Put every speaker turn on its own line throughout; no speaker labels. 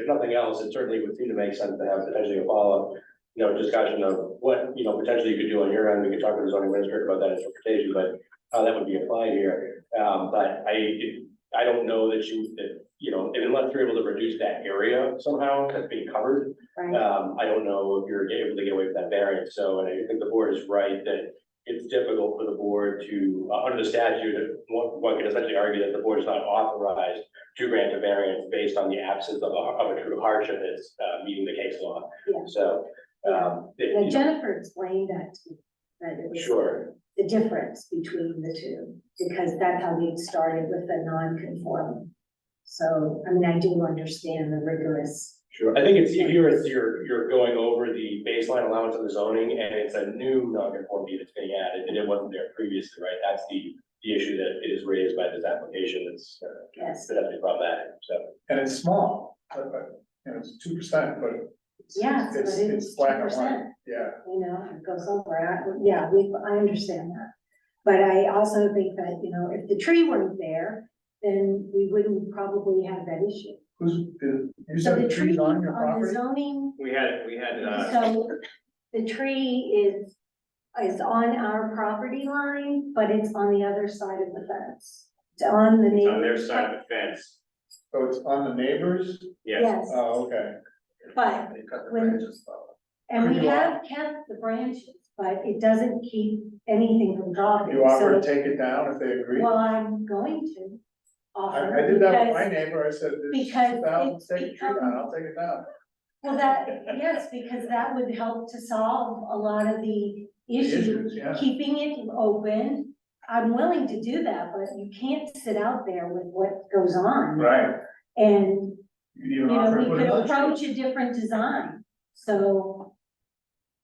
if nothing else, it certainly would seem to make sense to have potentially a follow-up, you know, discussion of what, you know, potentially you could do on your end, we could talk to the zoning administrator about that interpretation, but how that would be applied here. Um, but I, I don't know that you, that, you know, unless you're able to reduce that area somehow that's being covered,
right?
um, I don't know if you're able to get away with that variance, so, and I think the board is right that it's difficult for the board to, uh, under the statute, one, one could essentially argue that the board is not authorized to grant a variance based on the absence of a, of a true hardship that's, uh, meeting the case law.
Yeah.
So, um, it-
Now Jennifer explained that to me, that it was
sure,
the difference between the two, because that's how we started with the non-conforming. So, I mean, I do understand the rigorous,
sure. I think it's, if you're, it's- you're, you're going over the baseline allowance of the zoning, and it's a new non-conformity that's being added, and it wasn't there previously, right? That's the, the issue that is raised by this application, that's, uh,
yes,
that have been problematic, so.
And it's small, but, but, you know, it's two percent, but. it's-
Yes, but
It's,
it's
it's black and
2%.
white, yeah,
you know, it goes over, I- yeah, we, I understand that. But I also think that, you know, if the tree weren't there, then we wouldn't probably have that issue.
who's, you
So
said
the
the
tree
trees on your
on the
property?
zoning
We had, we had, uh,
So the tree is, is on our property line, but it's on the other side of the fence. It's on the
it's
neighbor's.
on their side of the fence,
So it's on the neighbors,
yes.
Yes,
oh, okay.
but,
They cut the
when-
branches off.
and we have kept the branches, but it doesn't keep anything from dropping.
You offer to
So,
take it down if they agree?
Well, I'm going to offer.
I, I did that with my
because-
neighbor, I said, this is
because
two thousand,
it's
take the tree down,
become-
I'll take it down.
Well, that, yes, because that would help to solve a lot of the issues.
Issues, yeah.
keeping it open, I'm willing to do that, but you can't sit out there with what goes on.
Right.
And,
You
you
even
know,
offer to
we
put
could
another tree.
approach a different design, so.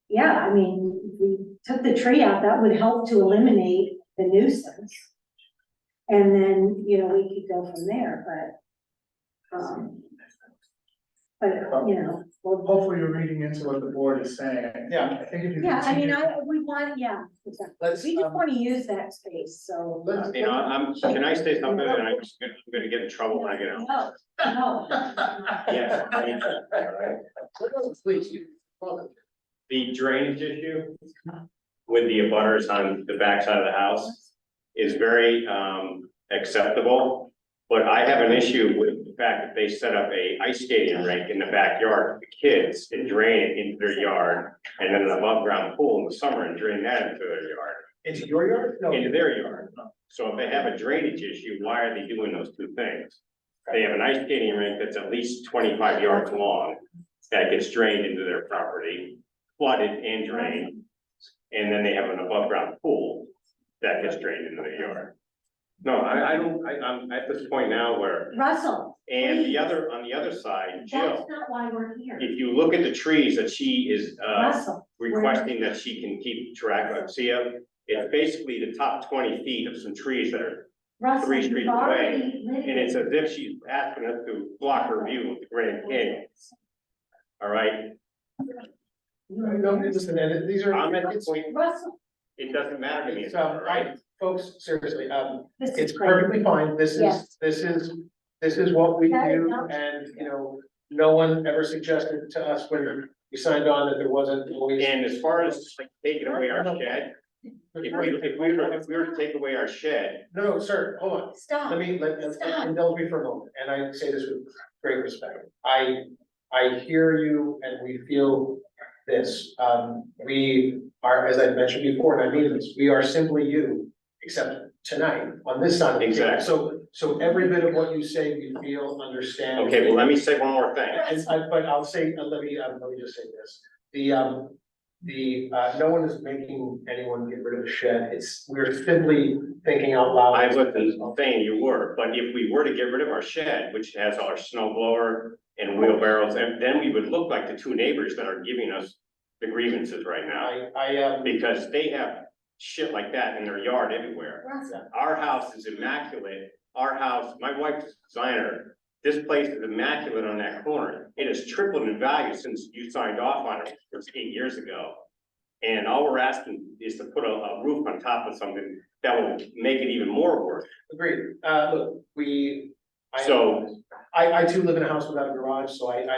Yeah, I mean, if we took the tree out, that would help to eliminate the nuisance. And then, you know, we could go from there, but, um. But, you know,
Well, hopefully you're reading into what the board is saying. Yeah. I think if you.
yeah, I mean,
continue-
I, we want, yeah, exactly.
Let's,
we just
um,
wanna use that space, so.
let's-
You know, I'm, can I say something that I'm just gonna, I'm gonna get in trouble when I get out?
No, no.
Yes, I mean,
Please.
the drainage issue with the abutters on the backside of the house is very, um, acceptable. But I have an issue with the fact that they set up a ice skating rink in the backyard for the kids and drain it into their yard. And then an above ground pool in the summer and drain that into their yard.
Into your yard? No.
into their yard. So if they have a drainage issue, why are they doing those two things? They have an ice skating rink that's at least twenty-five yards long that gets drained into their property, flooded and drained. And then they have an above-ground pool that gets drained into their yard. No, I, I don't, I, I'm at this point now where,
Russell,
and the other, on the other side,
that's
Jill,
not why we're here.
if you look at the trees that she is, uh,
Russell,
requesting that she can keep track of, see, uh, it's basically the top twenty feet of some trees that are,
Russell,
three
you've
streets
already
and it's
litigated.
as if she's asking us to block her view of the Grand Canyon, all right?
No, listen, and it- these are.
I'm at the point,
Russell,
it doesn't matter to me, it's
It's, um,
all right?
Folks, seriously, um,
this is.
it's
great.
perfectly fine, this
Yes.
is, this is, this is what we
That is
do,
not-
and, you know, no one ever suggested to us when we signed on that there wasn't always.
And as far as like taking away our shed, if we, if we were, if we were to take away our shed,
No, no, sir, hold on, let
Stop,
me, let, let-
Stop.
indulge me for a moment, and I say this with great respect. I, I hear you and we feel this. Um, we are, as I mentioned before, and I mean this, we are simply you, except tonight, on this side of the table.
Exactly.
So, so every bit of what you say, we feel, understand.
okay, well, let me say one more thing.
And I, but I'll say, uh, let me, um, let me just say this, the, um, the, uh, no one is making anyone get rid of the shed, it's, we're simply thinking out loud.
I wasn't saying you were, but if we were to get rid of our shed, which has our snow blower and wheelbarrows, and then we would look like the two neighbors that are giving us the grievances right now,
I, I, um,
because they have shit like that in their yard everywhere.
Russell,
Our house is immaculate, our house, my wife's a designer, this place is immaculate on that corner. It has tripled in value since you signed off on it eight years ago. And all we're asking is to put a, a roof on top of something that will make it even more worse.
Agreed, uh, look, we,
I-
So-
I, I too live in a house without a garage, so I, I